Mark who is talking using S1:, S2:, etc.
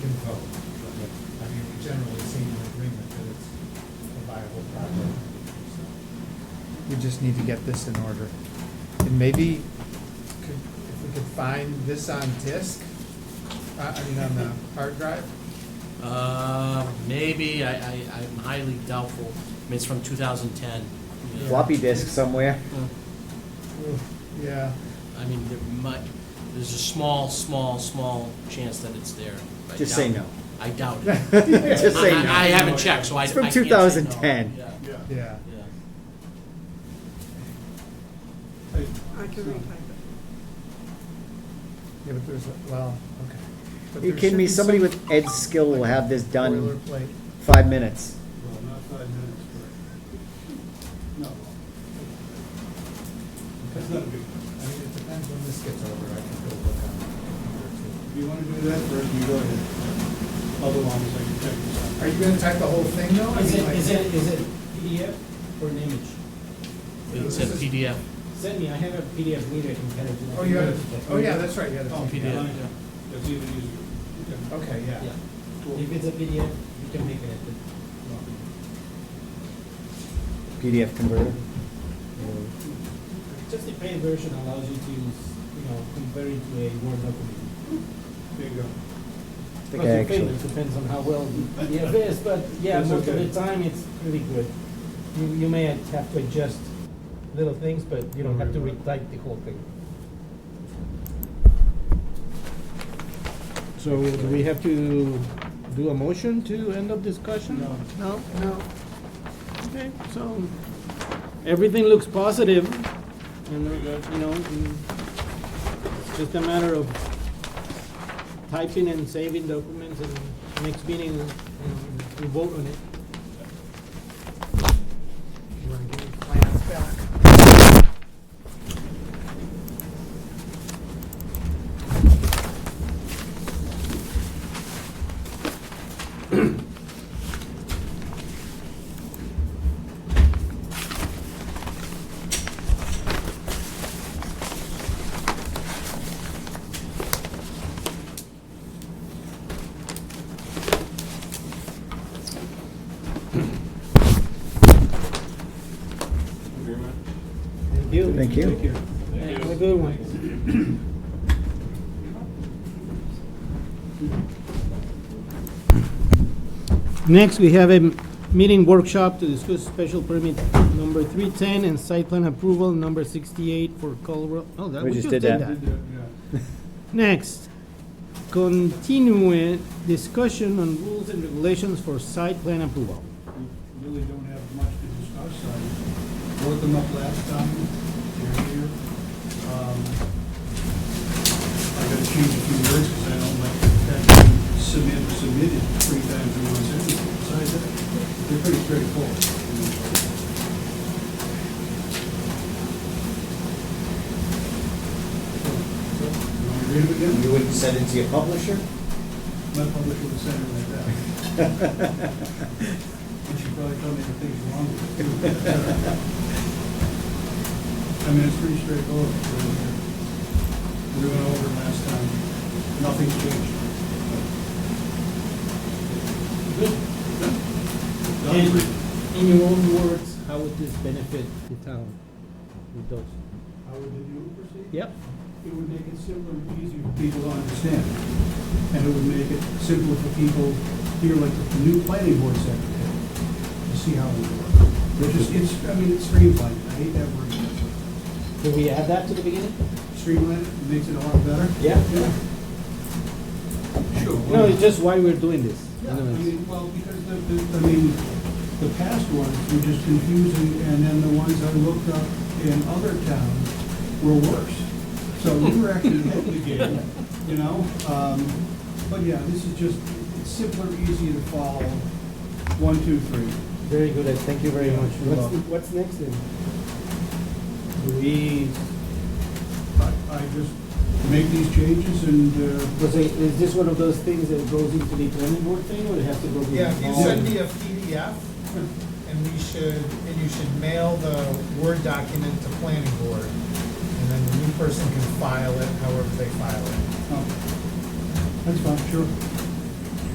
S1: code. I mean, we generally seem in agreement that it's a viable project. so. We just need to get this in order. And maybe could, if we could find this on disk, uh, I mean, on the hard drive?
S2: Uh, maybe, I, I, I'm highly doubtful. I mean, it's from two thousand ten.
S3: floppy disk somewhere.
S1: Ooh, Yeah,
S2: I mean, there might, there's a small, small, small chance that it's there. I
S3: Just say
S2: doubt-
S3: no.
S2: I doubt it.
S3: Just say
S2: I-
S3: no.
S2: I I haven't checked, so I, I
S3: It's from
S2: can't say no.
S3: 2010.
S2: Yeah,
S4: Yeah.
S1: yeah.
S2: yeah.
S4: Hey,
S5: I can
S4: so-
S5: retype
S1: Yeah, but there's, a- well, okay. But
S3: Are you
S1: there
S3: kidding me?
S1: should be
S3: Somebody
S1: some
S3: with Ed's skill will have this done
S1: Boilerplate.
S3: five minutes.
S4: Well, not five minutes, but, no. That's not a big,
S1: I mean, it depends when this gets over, I can go look on it.
S4: if you wanna do that first, you go ahead. Otherwise, I can check this out.
S1: Are you gonna type the whole thing though? I
S6: Is
S1: mean,
S6: it,
S1: like-
S6: is it, is it PDF or an image?
S2: It's a PDF.
S6: Send me, I have a PDF reader, I can kind of do that.
S1: Oh, you had it, oh yeah, that's right, you had it.
S4: Oh,
S2: PDF.
S4: yeah, That's even easier. Okay.
S1: Okay, yeah.
S6: Yeah.
S4: Cool.
S6: If it's a PDF, you can make it at the,
S3: PDF converter.
S6: just the paid version allows you to use, you know, compare it to a Word document.
S4: There you
S3: I
S4: go.
S6: Of
S3: think
S6: course,
S3: I
S6: the
S3: actually,
S6: payment depends on how well the PDF is, but yeah,
S4: That's
S6: most of
S4: okay.
S6: the time, it's pretty good. You, you may have to adjust little things, but you don't have to retype the whole thing.
S7: So do we have to do a motion to end of discussion?
S4: No.
S7: No?
S5: it. No,
S7: Okay, so everything looks positive and, uh, you know, and it's just a matter of typing and saving documents and next meeting, you know, we vote on it.
S5: plans back.
S6: Thank you.
S3: thank you.
S6: Have a good one.
S7: Next, we have a m- meeting workshop to discuss special permit number 310 and site plan approval number 68 for Colwell. Oh, that, we just did that.
S4: Did that, yeah.
S7: Next, continue discussion on rules and regulations for site plan approval.
S4: We really don't have much to discuss. I wrote them up last time, they're here. Um, I gotta change a few words because I don't like that being submit, submitted three times in one sentence. Besides that, they're pretty straightforward. You want me to read them again?
S3: You wouldn't send it to your publisher?
S4: My publisher would send it like that. And she probably told me the things wrong with it. too. I mean, it's pretty straightforward. really. We went over it last time. Nothing's changed.
S6: Good. And in your own words, how would this benefit the town with those?
S4: How would the new proceed?
S6: Yep.
S4: It would make it simpler and easier for people to understand. And it would make it simpler for people here, like the new planning board secretary, to see how it would work. They're just, it's, I mean, it's streamlined. I hate that word.
S6: Can we add that to the beginning?
S4: Streamlined makes it a lot better.
S6: Yeah.
S4: Yeah. Sure.
S7: No, it's just why we're doing this.
S4: Yeah, I mean, well, because the, the, I mean, the past ones were just confusing, and then the ones I looked up in other towns were worse. So we were actually ahead of the game, you know? Um, but yeah, this is just it's simpler, easier to follow. One, two, three.
S6: Very good, Ed. thank you very much.
S4: You're
S6: What's,
S4: welcome.
S6: what's next then? Do we,
S4: I, I just make these changes and, uh,
S6: was it, is this one of those things that goes into the planning board thing or it has to go to the?
S1: Yeah, if you
S6: Oh.
S1: send me a PDF, and we should, and you should mail the Word document to planning board, and then the new person can file it however they file it.
S4: oh, that's fine, sure.